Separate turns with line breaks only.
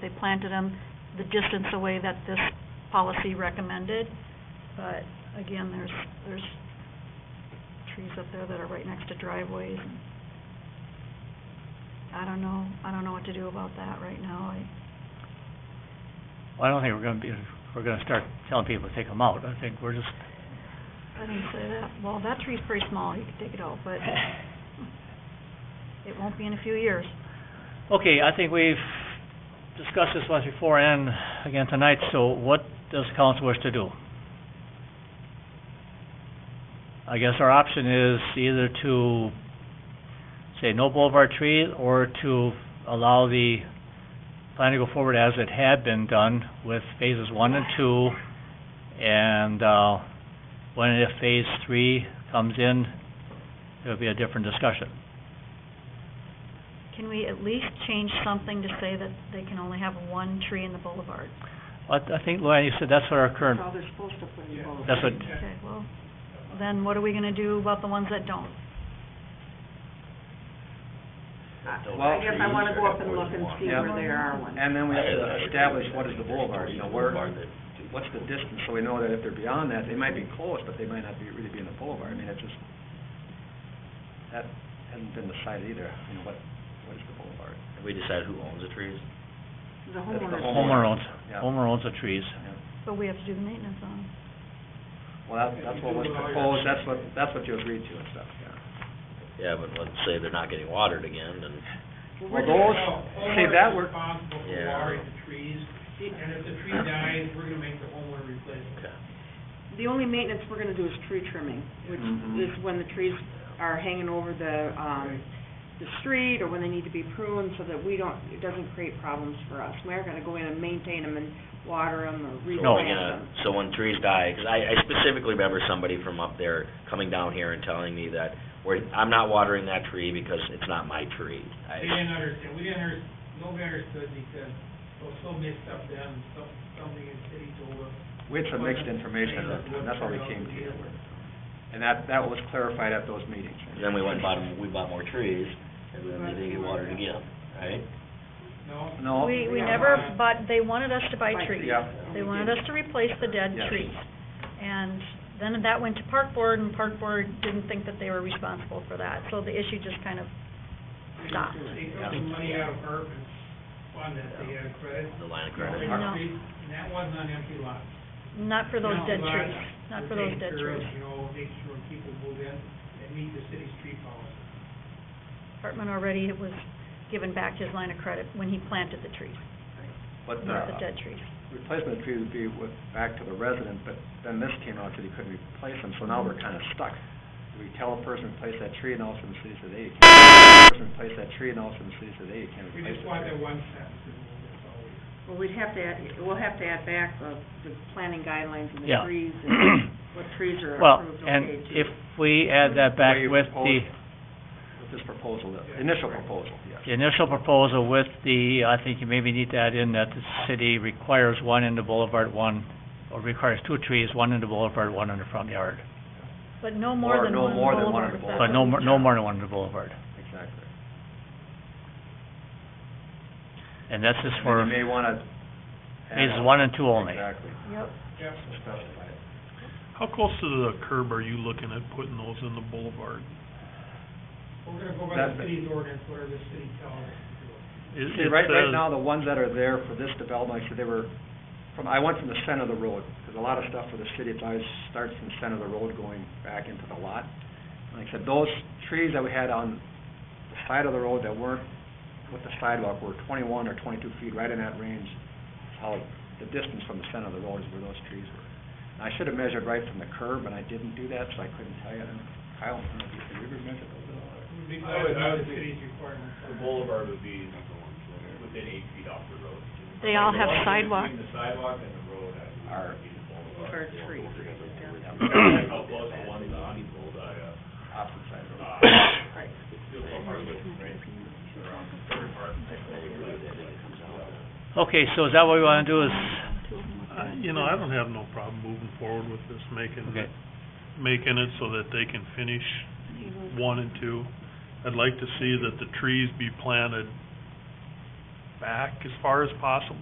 They planted them the distance away that this policy recommended, but again, there's, there's trees up there that are right next to driveways. and I don't know, I don't know what to do about that right now. I,
Well, I don't think we're gonna be, we're gonna start telling people to take them out. I think we're just,
I didn't say that, well, that tree's pretty small, you could take it out, but it won't be in a few years.
okay, I think we've discussed this once before and again tonight, so what does council wish to do? I guess our option is either to say no boulevard trees or to allow the plan to go forward as it had been done with phases one and two. And, uh, when and if phase three comes in, it'll be a different discussion.
Can we at least change something to say that they can only have one tree in the boulevard?
I, I think, Luann, you said that's what our current,
That's how they're supposed to put it both.
that's what,
Okay, well, then what are we gonna do about the ones that don't?
I guess I wanna go up and look and see where there are ones.
And then we have to establish what is the boulevard, you know, where, what's the distance, so we know that if they're beyond that, they might be close, but they might not be, really be in the boulevard, I mean, it's just, that hasn't been decided either, you know, what, what is the boulevard?
Have we decided who owns the trees?
The
That's the
homeowners.
homeowner owns,
Yeah.
homeowner owns the trees.
Yeah.
But we have to do the maintenance on them.
Well, that- that's what was proposed, that's what, that's what you agreed to and stuff, yeah.
Yeah, but let's say they're not getting watered again, then,
Well, those, see, that
Homeowner's
were,
responsible for
Yeah.
watering the trees, and if the tree dies, we're gonna make the homeowner replace it.
okay.
The only maintenance we're gonna do is tree trimming, which
Mhm.
is when the trees are hanging over the, um, the street or when they need to be pruned so that we don't, it doesn't create problems for us. We aren't gonna go in and maintain them and water them or
So
replant
we're
them.
gonna, so when trees die, 'cause I, I specifically remember somebody from up there coming down here and telling me that, we're, I'm not watering that tree because it's not my tree.
They
I,
didn't understand, we didn't under, nobody understood because it was so mixed up then, some, something in city told us.
we had some mixed information at that time, that's why we came to you. And that, that was clarified at those meetings.
then we went and bought, 'em- we bought more trees, and then they didn't get watered again, right?
No,
No?
We, we
yeah.
never, but they wanted us to buy trees.
Yeah.
They wanted us to replace the dead
Yes.
trees. And then that went to park board, and park board didn't think that they were responsible for that, so the issue just kind of stopped.
they took the money out of ARPA fund that they had credit.
The line of
They
credit.
took
No.
trees, And that wasn't on empty lots.
Not for those
Empty
dead
lots
trees, not
were
for those dead
taken care of,
trees.
You know, make sure people move in and meet the city's tree policy.
Hartman already was given back his line of credit when he planted the trees,
But uh,
not the
the,
dead trees.
replacement fee would be with, back to the resident, but then this came out that he couldn't replace them, so now we're kind of stuck. Do we tell a person to replace that tree and all of a sudden the city says, hey, you can't, person replace that tree and all of a sudden the city says, hey, you can't
We
replace
just want
it.
that one sentence, and that's all we.
Well, we'd have to add, we'll have to add back the, the planting guidelines and
Yeah.
the trees and what trees are
Well,
approved,
and
okay to.
if we add that back
Way you
with the,
proposed- With this proposal, the initial proposal, yes.
the initial proposal with the, I think you maybe need to add in that the city requires one in the boulevard, one, or requires two trees, one in the boulevard, one in the front yard.
But no more
Or
than
no
one
more than one
boulevard. if
on the boulevard.
But
that's
no,
what we
more- no more than one in the boulevard.
Exactly.
And that's just
And
for
You may want to.
phases one and two only.
Exactly.
Yep.
Yep.
So specify it.
How close to the curb are you looking at putting those in the boulevard?
We're gonna go by
That's
the
it.
city's ordinance, whatever the city tells us to do.
It- it
See, right, right
says-
now, the ones that are there for this development, actually, they were, from, I went from the center of the road, because a lot of stuff for the city, it always starts from the center of the road going back into the lot. Like I said, those trees that we had on the side of the road that weren't with the sidewalk were twenty-one or twenty-two feet, right in that range. is How, the distance from the center of the road is where those trees were. And I should have measured right from the curb, and I didn't do that, so I couldn't tell you. And Kyle, I don't know if you- did you ever measure those at all? or-
We'd be
I
glad
would-
to
I
know
would
the
think-
city's requirements.
The boulevard would be within eight feet off the road.
They all have
The one
sidewalk.
Between the sidewalk and the road, I would
Are-
be the boulevard.
Or trees.
How close the one is on the road, I, uh,
Opposite side of the road.
uh,
Right.
it's still a part of the right? Around the third part.
Okay, so is that what we wanna do is,
I- Uh, You know, I don't have no problem moving forward with this, making,
okay,
it- making it so that they can finish one and two. I'd like to see that the trees be planted
back as far as possible.